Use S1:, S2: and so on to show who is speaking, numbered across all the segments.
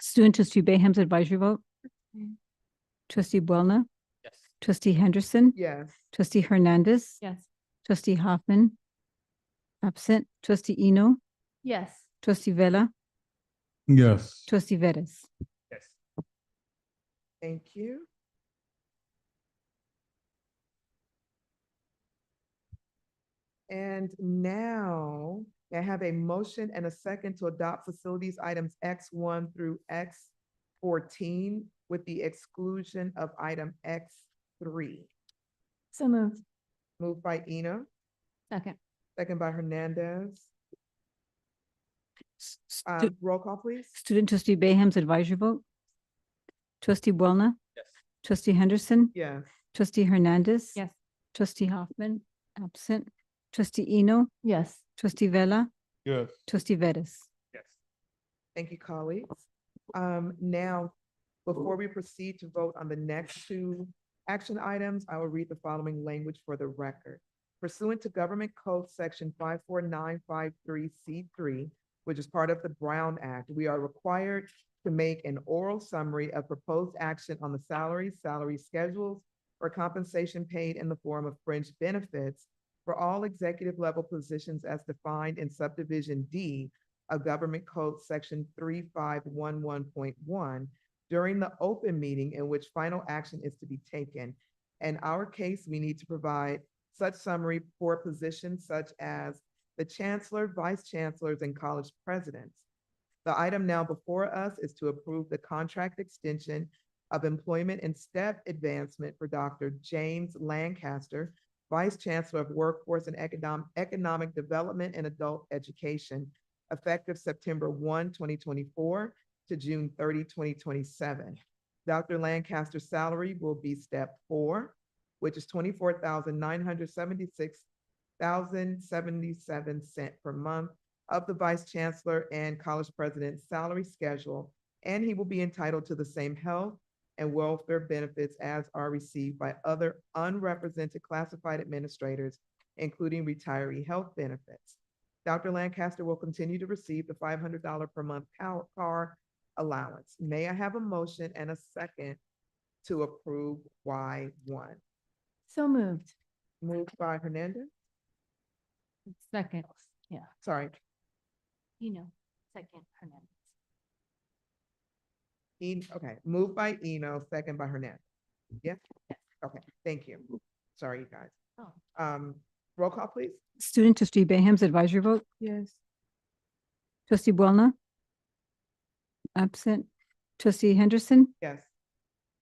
S1: Student trustee Bayham's advisory vote.
S2: Okay.
S1: Trustee Boulna,
S3: Yes.
S1: trustee Henderson,
S2: Yes.
S1: trustee Hernandez,
S2: Yes.
S1: trustee Hoffman. Absent, trustee Eno,
S2: Yes.
S1: trustee Vella,
S4: Yes.
S1: trustee Vettis.
S3: Yes.
S2: Thank you.
S5: And now may I have a motion and a second to adopt facilities items X one through X fourteen with the exclusion of item X three.
S2: So moved.
S5: Moved by Eno,
S2: Second.
S5: second by Hernandez.
S1: S-
S5: Uh,
S1: stu-
S5: roll call, please.
S1: Student trustee Bayham's advisory vote. Trustee Boulna,
S3: Yes.
S1: trustee Henderson,
S5: Yes.
S1: trustee Hernandez.
S2: Yes.
S1: Trustee Hoffman, absent, trustee Eno,
S2: Yes.
S1: trustee Vella,
S4: Yes.
S1: trustee Vettis.
S3: Yes.
S5: Thank you, colleagues. Um, now, before we proceed to vote on the next two action items, I will read the following language for the record. Pursuant to Government Code Section five four nine five three C three, which is part of the Brown Act, we are required to make an oral summary of proposed action on the salaries, salary schedules, or compensation paid in the form of fringe benefits for all executive level positions as defined in subdivision D of Government Code Section three five one one point one during the open meeting in which final action is to be taken. In our case, we need to provide such summary for positions such as the chancellor, vice chancellors, and college presidents. The item now before us is to approve the contract extension of employment and step advancement for Dr. James Lancaster, Vice Chancellor of Workforce and Economic, Economic Development and Adult Education, effective September 1, 2024, to June 30, 2027. Dr. Lancaster's salary will be step four, which is twenty-four thousand nine hundred seventy-six thousand seventy-seven cent per month of the Vice Chancellor and College President's salary schedule, and he will be entitled to the same health and welfare benefits as are received by other unrepresented classified administrators, including retiree health benefits. Dr. Lancaster will continue to receive the five hundred dollar per month power car allowance. May I have a motion and a second to approve Y one?
S2: So moved.
S5: Moved by Hernandez,
S2: Second. Yeah.
S5: sorry,
S2: You know, second. Hernandez.
S5: En- okay, moved by Eno, second by Hernandez. Yes? Okay, thank you. Sorry, you guys.
S2: Oh.
S5: Um, roll call, please.
S1: Student trustee Bayham's advisory vote.
S5: Yes.
S1: Trustee Boulna. Absent. Trustee Henderson,
S5: Yes.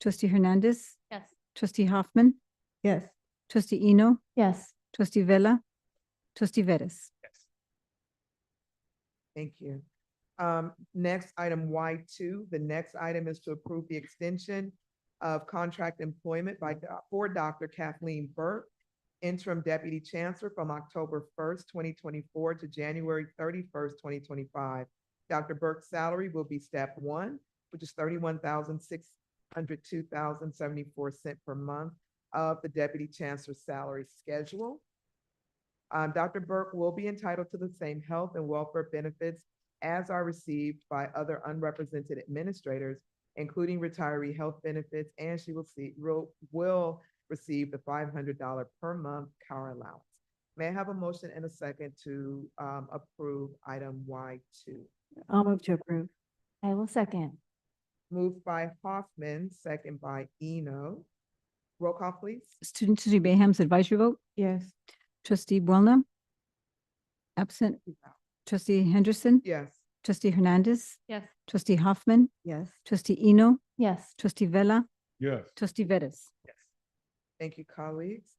S1: trustee Hernandez,
S2: Yes.
S1: trustee Hoffman,
S5: Yes.
S1: trustee Eno,
S2: Yes.
S1: trustee Vella, trustee Vettis.
S3: Yes.
S5: Thank you. Um, next item Y two, the next item is to approve the extension of contract employment by, doc- for Dr. Kathleen Burke, interim deputy chancellor from October first, twenty twenty-four to January thirty-first, twenty twenty-five. Dr. Burke's salary will be step one, which is thirty-one thousand six hundred two thousand seventy-four cent per month of the deputy chancellor's salary schedule. Um, Dr. Burke will be entitled to the same health and welfare benefits as are received by other unrepresented administrators, including retiree health benefits, and she will see, will, will receive the five hundred dollar per month car allowance. May I have a motion and a second to, um, approve item Y two?
S2: I'll move to approve. I will second.
S5: Moved by Hoffman, second by Eno. Roll call, please.
S1: Student trustee Bayham's advisory vote.
S5: Yes.
S1: Trustee Boulna. Absent. Trustee Henderson,
S5: Yes.
S1: trustee Hernandez,
S2: Yes.
S1: trustee Hoffman,
S5: Yes.
S1: trustee Eno,
S2: Yes.
S1: trustee Vella,
S4: Yes.
S1: trustee Vettis.
S5: Thank you, colleagues.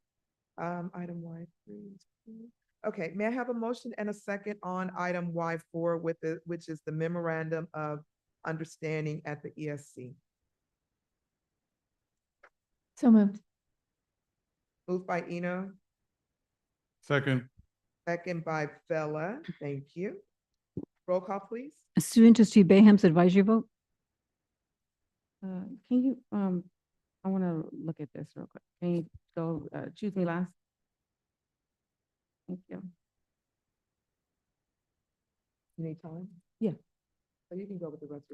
S5: Um, item Y three. is approved. Okay, may I have a motion and a second on item Y four with the, which is the memorandum of understanding at the E ESC?
S2: So moved.
S5: Moved by Eno,
S4: Second.
S5: second by Bella. Thank you. Roll call, please.
S1: Student trustee Bayham's advisory vote.
S6: Uh, can you, um, I want to look at this real quick. Can you go, uh, choose me last? Thank you.
S5: Anytime?
S6: Yeah.
S5: So Oh, you can go with the rest.